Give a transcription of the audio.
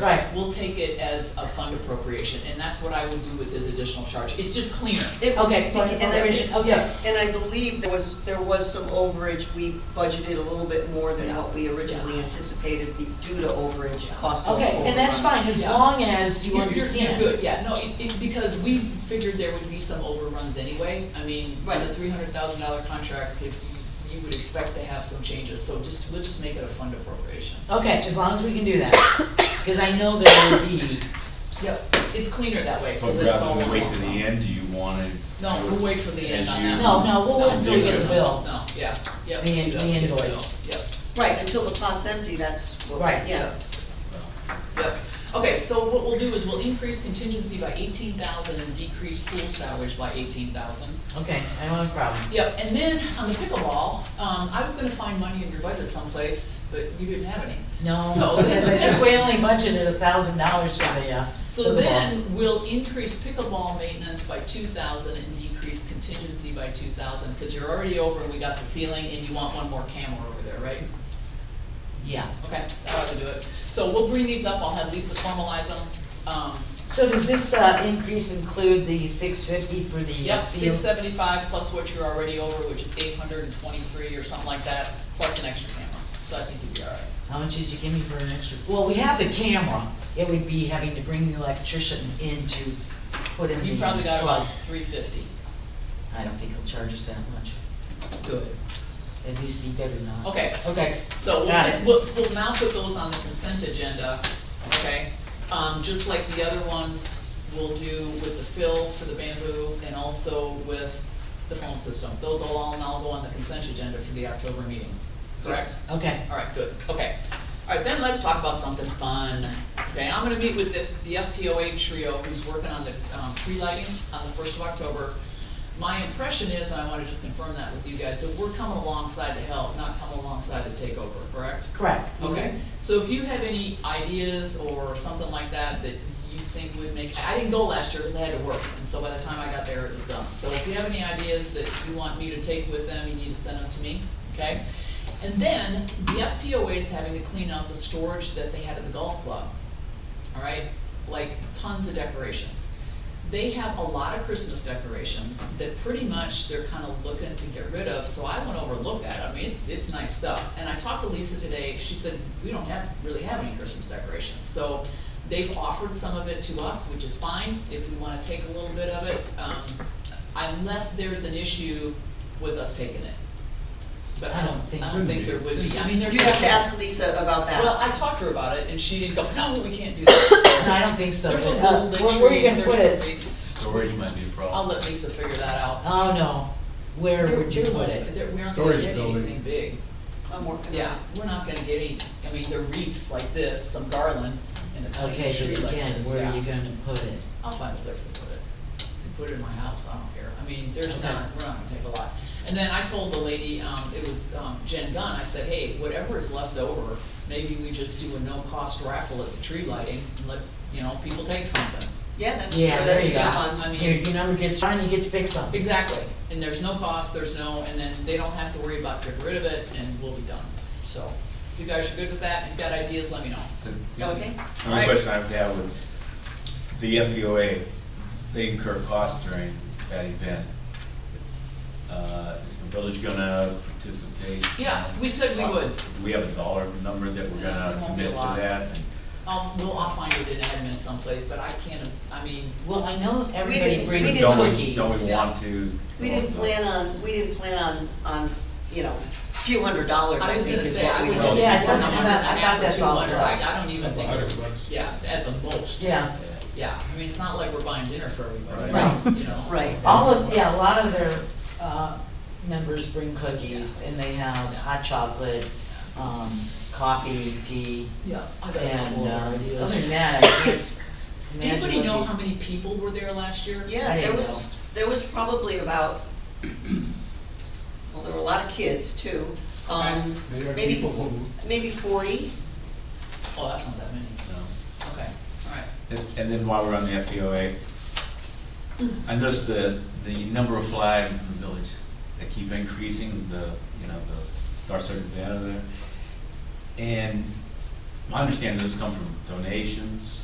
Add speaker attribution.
Speaker 1: Right.
Speaker 2: We'll take it as a fund appropriation, and that's what I would do with his additional charge, it's just cleaner.
Speaker 3: It-
Speaker 1: Okay, fund
Speaker 3: and I-
Speaker 1: appropriation, okay.
Speaker 3: And I believe there was, there was some overage, we budgeted a little bit more than what we originally anticipated be due to overage, cost of
Speaker 1: Okay, and that's
Speaker 3: overrun.
Speaker 1: fine, as
Speaker 2: Yeah.
Speaker 1: long as you
Speaker 2: You're- you're-
Speaker 1: understand.
Speaker 2: You're good, yeah, no, it, it, because we figured there would be some overruns anyway, I mean, on a
Speaker 3: Right.
Speaker 2: three hundred thousand dollar contract, it- you would expect to have some changes, so just, we'll just make it a fund appropriation.
Speaker 1: Okay, as long as we can do that, cause I know there will be,
Speaker 2: Yep. It's cleaner that way,
Speaker 4: But
Speaker 2: because it's all
Speaker 4: rather than
Speaker 2: one
Speaker 4: wait
Speaker 2: lump
Speaker 4: to
Speaker 2: sum.
Speaker 4: the end, do you wanna?
Speaker 2: No, we'll wait for the end
Speaker 4: As
Speaker 2: on
Speaker 4: you-
Speaker 2: that.
Speaker 1: no, no, we'll wait until we
Speaker 4: Yeah.
Speaker 1: get the bill.
Speaker 2: No, yeah, yep.
Speaker 1: The in- the
Speaker 2: yep, yep,
Speaker 1: invoice.
Speaker 2: Yep.
Speaker 3: Right, until the pot's empty, that's, what-
Speaker 1: Right.
Speaker 3: yeah,
Speaker 2: Yep, okay, so what we'll do is we'll increase contingency by eighteen thousand and decrease pool salaries by eighteen thousand.
Speaker 1: Okay, I don't have a problem.
Speaker 2: Yep, and then on the pickleball, um, I was gonna find money in your budget someplace, but you didn't have any.
Speaker 1: No,
Speaker 2: So-
Speaker 1: because I think we only budgeted a thousand dollars for the, uh, for
Speaker 2: So
Speaker 1: the ball.
Speaker 2: then we'll increase pickleball maintenance by two thousand and decrease contingency by two thousand, cause you're already over and we got the ceiling and you want one more camera over there, right?
Speaker 1: Yeah,
Speaker 2: Okay, that ought to do it. So we'll bring these up, I'll have Lisa formalize them, um,
Speaker 1: so does this, uh, increase include the six fifty for the uh,
Speaker 2: Yep,
Speaker 1: seal?
Speaker 2: six seventy-five plus what you're already over, which is eight hundred and twenty-three or something like that, plus an extra camera, so I think you'd be alright.
Speaker 1: How much did you give me for an extra? Well, we have the camera, it would be having to bring the electrician in to put in the.
Speaker 2: You probably got
Speaker 1: plug.
Speaker 2: about three fifty.
Speaker 1: I don't think he'll charge us that much,
Speaker 2: Good.
Speaker 1: at least he better not.
Speaker 2: Okay.
Speaker 1: Okay,
Speaker 2: So
Speaker 1: Got
Speaker 2: we'll,
Speaker 1: it.
Speaker 2: we'll, we'll now put those on the consent agenda, okay? Um, just like the other ones, we'll do with the fill for the bamboo and also with the phone system. Those will all now go on the consent agenda for the October meeting, correct?
Speaker 1: okay,
Speaker 2: Alright, good, okay. Alright, then let's talk about something fun. Okay, I'm gonna meet with the, the FPOA trio who's working on the, um, tree lighting on the first of October. My impression is, and I wanna just confirm that with you guys, that we're coming alongside to help, not coming alongside to take over, correct?
Speaker 1: correct.
Speaker 2: Okay, so if you have any ideas or something like that that you think would make, I didn't go last year because I had to work, and so by the time I got there, it was done. So if you have any ideas that you want me to take with them, you need to send them to me, okay? And then, the FPOA is having to clean out the storage that they had at the golf club, all right? Like tons of decorations. They have a lot of Christmas decorations that pretty much they're kind of looking to get rid of, so I went over and looked at it, I mean, it's nice stuff. And I talked to Lisa today, she said, we don't have, really have any Christmas decorations, so they've offered some of it to us, which is fine, if we wanna take a little bit of it, um, unless there's an issue with us taking it. But I don't, I don't think there would be, I mean, there's.
Speaker 3: you have to ask Lisa about
Speaker 2: Well,
Speaker 3: that.
Speaker 2: I talked to her about it, and she didn't go, no, we can't do that.
Speaker 1: No, I don't think so,
Speaker 2: There's a
Speaker 1: Uh,
Speaker 2: little
Speaker 1: where, where are you
Speaker 2: tree,
Speaker 1: gonna put
Speaker 2: there's
Speaker 1: it?
Speaker 2: some leaks.
Speaker 4: Storage might be a
Speaker 2: I'll
Speaker 4: problem.
Speaker 2: let Lisa figure that out.
Speaker 1: Oh, no, where would you
Speaker 2: There-
Speaker 1: put
Speaker 2: there-
Speaker 1: it?
Speaker 2: there- we aren't gonna
Speaker 4: Storage
Speaker 2: get
Speaker 4: building.
Speaker 2: anything big,
Speaker 3: I'm working on it.
Speaker 2: yeah, we're not gonna get any, I mean, there are wreaths like this, some garland, and a tiny
Speaker 1: Okay,
Speaker 2: tree
Speaker 1: but
Speaker 2: like
Speaker 1: again,
Speaker 2: this,
Speaker 1: where are
Speaker 2: yeah.
Speaker 1: you gonna put it?
Speaker 2: I'll find a place to put it, and put it in my house, I don't care, I mean, there's
Speaker 1: Okay.
Speaker 2: not, we're not gonna take a lot. And then I told the lady, um, it was, um, Jen Gunn, I said, hey, whatever is left over, maybe we just do a no-cost raffle at the tree lighting, and let, you know, people take something.
Speaker 3: Yeah, that's true,
Speaker 1: Yeah, there
Speaker 3: that'd
Speaker 1: you
Speaker 3: be
Speaker 1: go.
Speaker 3: fun.
Speaker 2: I mean-
Speaker 1: Your, your number gets fine, you get to pick something.
Speaker 2: Exactly, and there's no cost, there's no, and then they don't have to worry about getting rid of it, and we'll be done, so. If you guys are good with that, if you've got ideas, let me know.
Speaker 4: The- the
Speaker 3: Okay.
Speaker 2: Right.
Speaker 4: Only question I would have would, the FPOA, they incur costs during that event. Uh, Is the village gonna participate?
Speaker 2: Yeah, we said we would.
Speaker 4: Do we have a dollar number that we're
Speaker 2: Yeah, it
Speaker 4: gonna
Speaker 2: won't be a
Speaker 4: commit to
Speaker 2: lot.
Speaker 4: that? And
Speaker 2: I'll, well, I'll find it in admin someplace, but I can't, I mean,
Speaker 1: Well, I know
Speaker 3: didn't-
Speaker 1: everybody
Speaker 3: we
Speaker 1: brings
Speaker 3: didn't-
Speaker 4: Don't
Speaker 1: cookies.
Speaker 4: we, don't we want to?
Speaker 3: We didn't plan on, we didn't plan on, on, you know, a few hundred dollars,
Speaker 2: I
Speaker 3: I
Speaker 2: was
Speaker 3: think
Speaker 2: gonna
Speaker 3: is
Speaker 2: say,
Speaker 3: what
Speaker 2: I
Speaker 3: we
Speaker 2: would.
Speaker 3: had.
Speaker 4: don't-
Speaker 1: Yeah, I thought-
Speaker 2: a hundred and a
Speaker 1: I thought
Speaker 2: half or
Speaker 1: that's all it
Speaker 2: 200. I-
Speaker 1: was.
Speaker 2: I don't even think,
Speaker 5: Couple
Speaker 2: it-
Speaker 5: hundred bucks.
Speaker 2: yeah, at the most.
Speaker 1: Yeah,
Speaker 2: Yeah, I mean, it's not like we're buying dinner for everybody,
Speaker 1: Right.
Speaker 2: you know?
Speaker 3: Right.
Speaker 1: all of, yeah, a lot of their, uh, members bring cookies and they have hot chocolate, um, coffee, tea,
Speaker 2: Yeah, I got a couple
Speaker 1: and,
Speaker 2: of
Speaker 1: um,
Speaker 2: ideas.
Speaker 1: other than that, I can't imagine.
Speaker 2: Anybody
Speaker 1: what
Speaker 2: know
Speaker 1: you-
Speaker 2: how many people were there last year?
Speaker 1: I
Speaker 3: Yeah, there
Speaker 1: didn't
Speaker 3: was, there was probably about, well, there were a lot of kids too. Um,
Speaker 5: They are
Speaker 3: maybe,
Speaker 5: people who-
Speaker 3: maybe forty,
Speaker 2: Oh, that's not that many,
Speaker 4: No.
Speaker 2: okay, alright.
Speaker 4: And and then while we're on the FPOA, I noticed the, the number of flags in the village, they keep increasing, the, you know, the Star Circle banner there. And I understand those come from donations,